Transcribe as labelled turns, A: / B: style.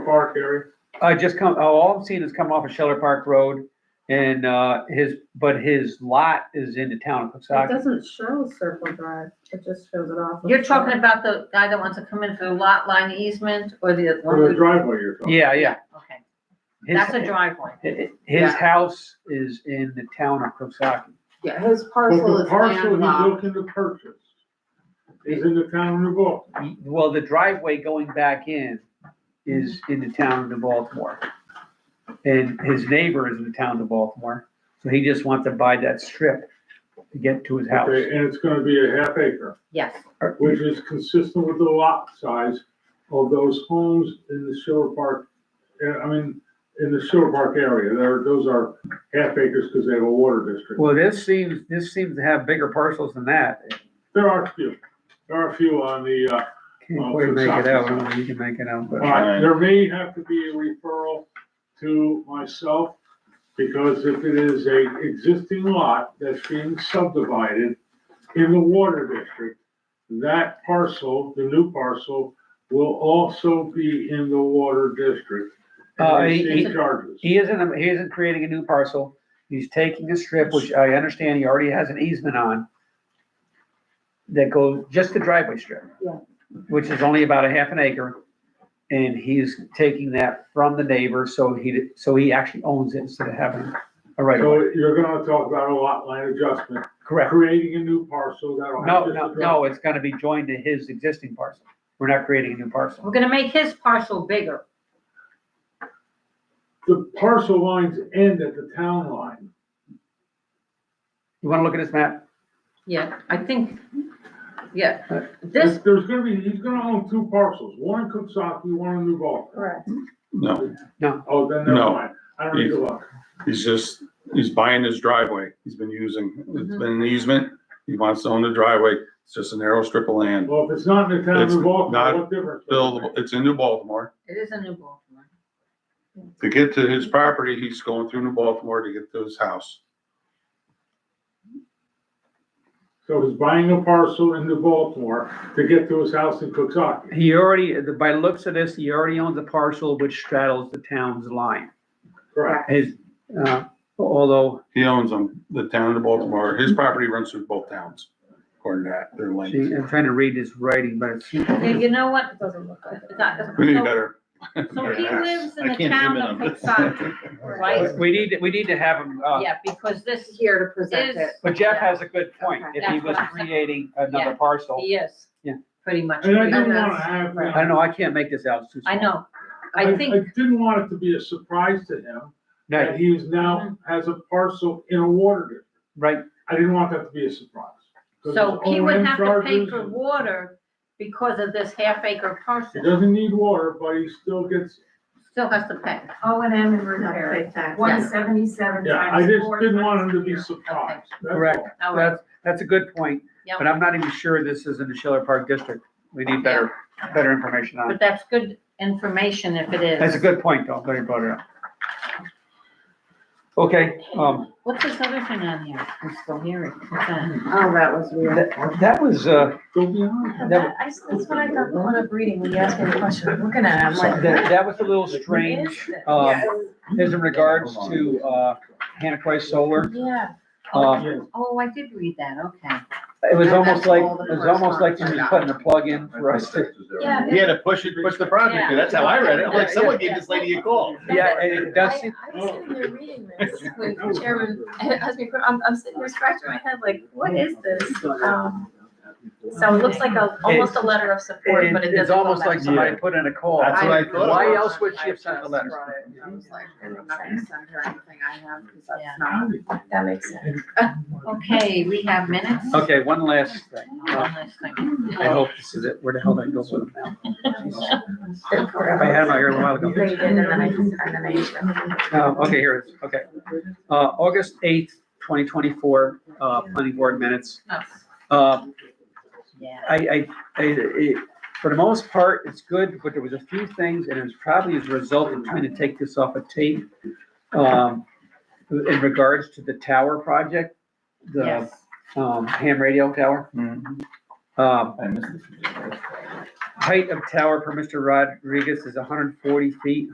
A: Park area?
B: Uh, just come, oh, all I'm seeing is coming off of Sheller Park Road and, uh, his, but his lot is in the town of
C: It
B: Coxsackie.
C: doesn't show Circle Drive, it just shows it off. of
D: You're talking
C: Circle.
D: about the guy that wants to come in for the lot line easement or the other
A: Or the
D: one?
A: driveway you're talking?
B: Yeah, yeah.
D: Okay,
B: His-
D: that's a driveway.
B: hi-
D: yeah.
B: His house is in the town of Coxsackie.
E: Yeah, his parcel
A: But the
E: is
A: parcel he's
E: landlocked.
A: looking to purchase is in the town of Baltimore.
B: Well, the driveway going back in is
D: Mm-hmm.
B: in the town of Baltimore. And his neighbor is in the town of Baltimore, so he just wants to buy that strip to get to his house.
A: Okay, and it's gonna be a half acre,
D: Yes,
A: which is consistent with the lot size of those homes in the Silver Park, uh, I mean, in the Silver Park area. There, those are half acres because they have a water district.
B: Well, this seems, this seems to have bigger parcels than that.
A: There are a few, there are a few on the, uh,
B: Can't
A: Well,
B: quite make it
A: Coxsackie.
B: out, I don't know, you can make it out, but.
A: All right, there may have to be a referral to myself, because if it is a existing lot that's being subdivided in the water district, that parcel, the new parcel, will also be in the water district.
B: Uh,
A: And
B: he-
A: receive
B: he-
A: charges.
B: He isn't, he isn't creating a new parcel. He's taking a strip, which I understand he already has an easement on, that goes, just the driveway strip.
E: Yeah.
B: Which is only about a half an acre. And he's taking that from the neighbor, so he, so he actually owns it instead of having a right of way.
A: So you're gonna talk about a lot line adjustment,
B: Correct.
A: creating a new parcel that'll have
B: No,
A: just
B: no,
A: a
B: no, it's gonna be joined to his existing parcel. We're not creating a new parcel.
D: we're gonna make his parcel bigger.
A: The parcel lines end at the town line.
B: You wanna look at this map?
D: Yeah, I think, yeah,
A: There's,
D: this,
A: there's gonna be, he's gonna own two parcels, one in Cooksaki, one in New Baltimore.
C: Correct.
F: No,
A: Oh, then never
F: No.
A: mind. I don't need to look.
F: he's just, he's buying his driveway. He's been using,
D: Mm-hmm.
F: it's been an easement. He wants to own the driveway. It's just a narrow strip of land.
A: Well, if it's not in the town of
F: It's
A: New Baltimore,
F: not
A: what difference? does it
F: Buildable, it's in New Baltimore.
D: it is a new Baltimore.
F: To get to his property, he's going through New Baltimore to get to his house.
A: make? So he's buying a parcel in New Baltimore to get to his house in Cooksaki.
B: He already, by the looks of this, he already owns a parcel which straddles the town's line.
A: Correct.
B: His, uh, although,
F: He owns them, the town of Baltimore. His property runs through both towns, according to that, their
B: see,
F: length.
B: I'm trying to read his writing, but it's,
D: Yeah, you know what?
C: It doesn't look like it.
F: We need better.
D: So he lives in
G: I
D: the
G: can't zoom
D: town of
G: in on this.
D: Woodstock, right?
B: we need, we need to have him, uh,
D: Yeah, because this
E: Here to present
D: is,
E: it.
B: but Jeff has a good point.
E: Okay.
B: If he was creating another parcel,
D: he is.
B: Yeah.
D: Pretty much.
A: And I
D: creating-
A: didn't
E: that's-
A: wanna have.
B: I don't know, I can't make this out. it's too
D: I
B: small.
D: know, I
A: I
D: think,
A: didn't want it to be a surprise to him that
B: No,
A: he is now, has a parcel in a water district.
B: right,
A: I didn't want that to be a surprise. 'Cause
D: so
A: his
D: he would
A: O&M
D: have to pay
A: charges-
D: for water because of this half acre
A: He
D: parcel,
A: doesn't need water, but he still gets,
D: still has to pay.
H: O and M and
C: Not
H: repair,
C: like that.
H: one seventy-seven
A: yeah, I
H: times
A: just
H: four
A: didn't want him
H: times
A: to
H: a
A: be
H: year.
A: surprised. That's
B: correct.
A: all.
D: All right.
B: That's, that's a good point,
D: Yeah.
B: but I'm not even sure this is in the Schiller Park District. We need better, better information on
D: But
B: it.
D: that's good information if it is.
B: That's a good point, though, that you brought it up. Okay, um,
D: What's this other thing on here? I'm still hearing. What's that?
E: Oh, that was weird.
B: that, that was, uh,
A: Go beyond.
B: that,
H: That- I- That's what I got going up reading when you asked me the question, I'm looking at it, I'm like.
B: that, that was a little
H: "What is
B: strange,
H: this?"
B: um, is in regards to, uh, Hannah Christ Solar.
H: Yeah.
B: Um,
A: Yeah.
D: Oh, I did read that, okay.
B: It was
E: And
B: almost
E: that's
B: like,
E: all the
B: it was
E: first
B: almost like
E: ones I
B: you were
E: got.
B: putting a plug in for us to,
H: Yeah.
G: He had to push it, push the project, through. that's how I read it, I'm like, someone gave this lady a call.
B: yeah, oh. and it does
H: I,
B: seem,
H: I was sitting there reading this when Chairman asked me, I'm, I'm sitting here scratching my head like, what is this? Um, So it looks like a, almost a letter of support, but it
B: it- it's
H: doesn't go
B: almost
H: that
B: like
H: far.
B: somebody put in a call.
G: That's what I thought.
B: Why else would she have sent the
E: just
B: letter?
E: brought it. I was like, I'm not gonna send her anything I have, because that's not.
H: That makes sense.
D: Okay, we have minutes.
B: Okay, one last thing.
D: One last thing.
B: I hope this is it. Where the hell did I go with it now? I
H: No,
B: had it out here a while
H: you
B: ago.
H: did, and then I, and then I. used them.
B: Oh, okay, here it is, okay. Uh, August eighth, twenty twenty-four, uh, planning board minutes. Uh,
D: Yeah.
B: I, uh, I, I, it, for the most part, it's good, but there was a few things, and it was probably as a result of trying to take this off a tape. Um, in regards to the tower project, the,
D: Yes.
B: um, ham radio tower.
G: Mhm.
B: Um,
G: I missed it.
B: height of tower per Mr. Rodriguez is hundred and forty feet,